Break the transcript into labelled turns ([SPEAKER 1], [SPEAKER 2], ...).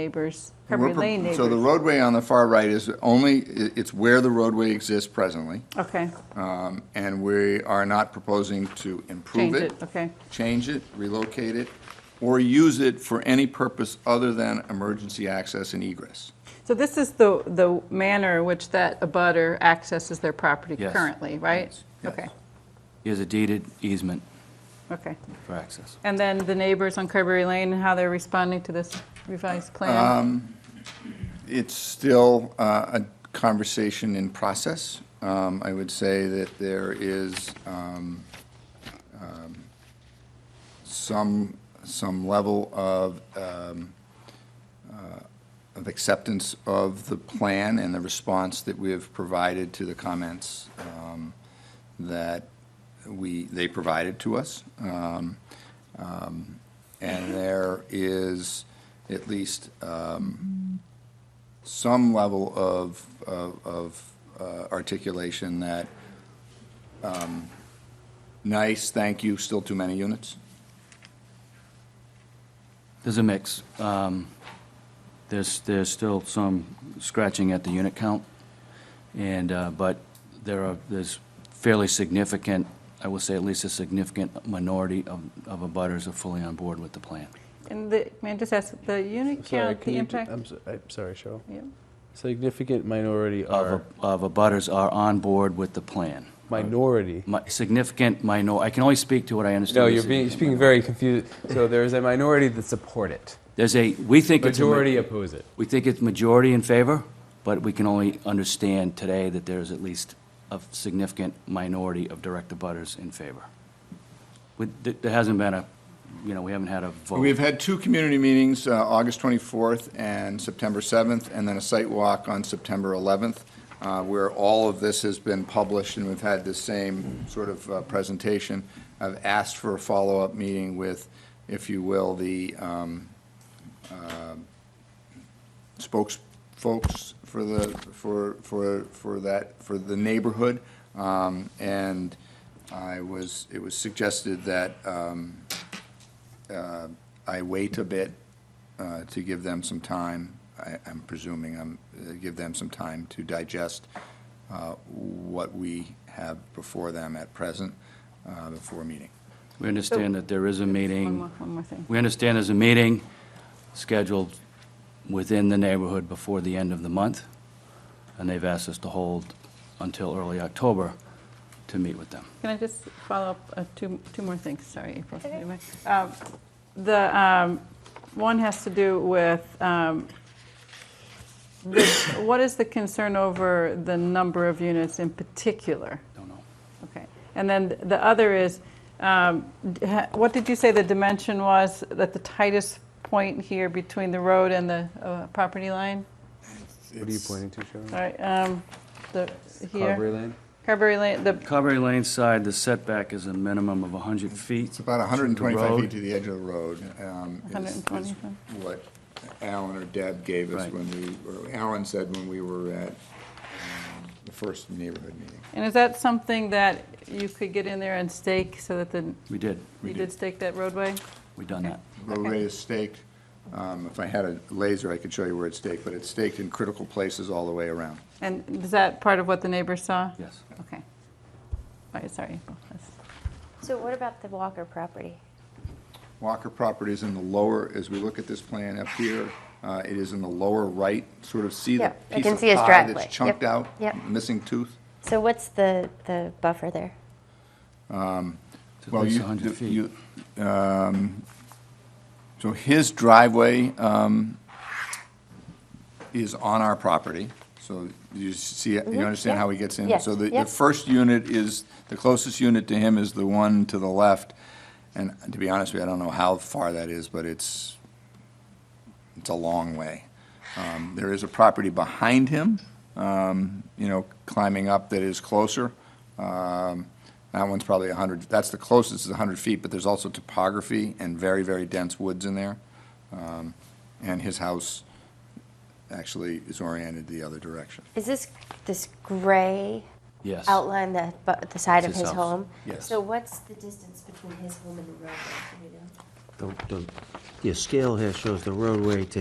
[SPEAKER 1] neighbors,
[SPEAKER 2] We're
[SPEAKER 1] Carberry
[SPEAKER 2] pro-
[SPEAKER 1] Lane
[SPEAKER 2] So the
[SPEAKER 1] neighbors.
[SPEAKER 2] roadway on the far right is only, i- it's where the roadway exists presently,
[SPEAKER 1] Okay,
[SPEAKER 2] um, and we are not proposing to improve
[SPEAKER 1] change
[SPEAKER 2] it.
[SPEAKER 1] it, okay.
[SPEAKER 2] Change it, relocate it, or use it for any purpose other than emergency access and egress.
[SPEAKER 1] So this is the, the manner in which that abutter accesses their property
[SPEAKER 3] Yes.
[SPEAKER 1] currently, right?
[SPEAKER 2] Yes.
[SPEAKER 1] Okay,
[SPEAKER 3] Is a deeded easement
[SPEAKER 1] okay.
[SPEAKER 3] for access.
[SPEAKER 1] And then the neighbors on Carberry Lane, how they're responding to this revised plan?
[SPEAKER 2] Um, It's still uh, a conversation in process. Um, I would say that there is um, um, some, some level of, um, uh, of acceptance of the plan and the response that we have provided to the comments um, that we, they provided to us. Um, um, And there is at least some level of, of- of uh, articulation that, um, nice, thank you, still too many units.
[SPEAKER 3] There's a mix. Um, There's, there's still some scratching at the unit count, and, uh, but there are, there's fairly significant, I will say at least a significant minority of, of abutters are fully on board with the plan.
[SPEAKER 1] And the, may I just ask, the unit
[SPEAKER 4] Sorry,
[SPEAKER 1] count,
[SPEAKER 4] can
[SPEAKER 1] the
[SPEAKER 4] you, ju-
[SPEAKER 1] impact?
[SPEAKER 4] I'm, so- I'm sorry, Cheryl.
[SPEAKER 1] Yeah.
[SPEAKER 4] Significant minority
[SPEAKER 3] Of,
[SPEAKER 4] are
[SPEAKER 3] a- of abutters are on board with the plan.
[SPEAKER 4] minority.
[SPEAKER 3] Mi- Significant minor, I can only speak to what I understand.
[SPEAKER 4] No,
[SPEAKER 3] is
[SPEAKER 4] you're being,
[SPEAKER 3] significant
[SPEAKER 4] speaking
[SPEAKER 3] minority.
[SPEAKER 4] very confused. So there's a minority that support it.
[SPEAKER 3] There's a, we think it's a. ma-
[SPEAKER 4] Majority oppose it.
[SPEAKER 3] We think it's majority in favor, but we can only understand today that there is at least a significant minority of direct abutters in favor. With- th- There hasn't been a, you know, we haven't had a
[SPEAKER 2] We've
[SPEAKER 3] vote.
[SPEAKER 2] had two community meetings, uh, August 24th and September 7th, and then a site walk on September 11th, uh, where all of this has been published, and we've had the same sort of uh, presentation. I've asked for a follow-up meeting with, if you will, the um, um, spokes, folks for the, for, for, for that, for the neighborhood. Um, And I was, it was suggested that um, uh, I wait a bit uh, to give them some time, I- I'm presuming, I'm, uh, give them some time to digest uh, what we have before them at present, uh, before meeting.
[SPEAKER 3] We understand that there is a
[SPEAKER 1] One more,
[SPEAKER 3] meeting,
[SPEAKER 1] one more thing.
[SPEAKER 3] we understand there's a meeting scheduled within the neighborhood before the end of the month, and they've asked us to hold until early October to meet with them.
[SPEAKER 1] Can I just follow up, uh, two, two more things, sorry, April. if you don't mind. Um, The, um, one has to do with, um, the- what is the concern over the number of units in particular?
[SPEAKER 3] Don't know.
[SPEAKER 1] Okay, and then the other is, um, d- ha- what did you say the dimension was at the tightest point here between the road and the uh, property line?
[SPEAKER 4] What are you pointing to, Cheryl?
[SPEAKER 1] All right, um, the, here,
[SPEAKER 4] Carberry Lane?
[SPEAKER 1] Carberry Lane, the,
[SPEAKER 3] Carberry Lane side, the setback is a minimum of 100 feet.
[SPEAKER 2] It's about 125
[SPEAKER 3] road.
[SPEAKER 2] feet to the edge of the road. um, is-
[SPEAKER 1] 120
[SPEAKER 2] is
[SPEAKER 1] feet.
[SPEAKER 2] What Alan or Deb gave us
[SPEAKER 3] Right.
[SPEAKER 2] when we, or Alan said when we were at um, the first neighborhood meeting.
[SPEAKER 1] and is that something that you could get in there and stake so that the,
[SPEAKER 3] We did,
[SPEAKER 1] you did stake that roadway?
[SPEAKER 3] we done that.
[SPEAKER 2] Roadway is staked, um, if I had a laser, I could show you where it's staked, but it's staked in critical places all the way around.
[SPEAKER 1] And is that part of what the neighbors saw?
[SPEAKER 3] Yes.
[SPEAKER 1] Okay. All right, sorry, April. That's-
[SPEAKER 5] So what about the Walker property?
[SPEAKER 2] Walker property is in the lower, as we look at this plan up here, uh, it is in the lower right, sort of see the
[SPEAKER 5] Yep, I
[SPEAKER 2] piece
[SPEAKER 5] can
[SPEAKER 2] of
[SPEAKER 5] see his
[SPEAKER 2] pie
[SPEAKER 5] driveway.
[SPEAKER 2] that's
[SPEAKER 5] Yep,
[SPEAKER 2] chunked out?
[SPEAKER 5] yep.
[SPEAKER 2] Missing tooth?
[SPEAKER 5] So what's the, the buffer there?
[SPEAKER 3] It's at
[SPEAKER 2] Well,
[SPEAKER 3] least
[SPEAKER 2] you-
[SPEAKER 3] 100 feet.
[SPEAKER 2] you- um, So his driveway um, is on our property, so you see, you understand how he gets in?
[SPEAKER 5] Yeah,
[SPEAKER 2] So the, the
[SPEAKER 5] yeah.
[SPEAKER 2] first unit is, the closest unit to him is the one to the left, and to be honest with you, I don't know how far that is, but it's, it's a long way. Um, There is a property behind him, um, you know, climbing up that is closer. Um, That one's probably 100, that's the closest, is 100 feet, but there's also topography and very, very dense woods in there. Um, And his house actually is oriented the other direction.
[SPEAKER 5] Is this, this gray
[SPEAKER 3] Yes.
[SPEAKER 5] outline the, bu- the side of
[SPEAKER 3] It's his house.
[SPEAKER 5] his home?
[SPEAKER 2] Yes.
[SPEAKER 5] So what's the distance between his home and the roadway, do we know?
[SPEAKER 6] The- the- Your scale here shows the roadway to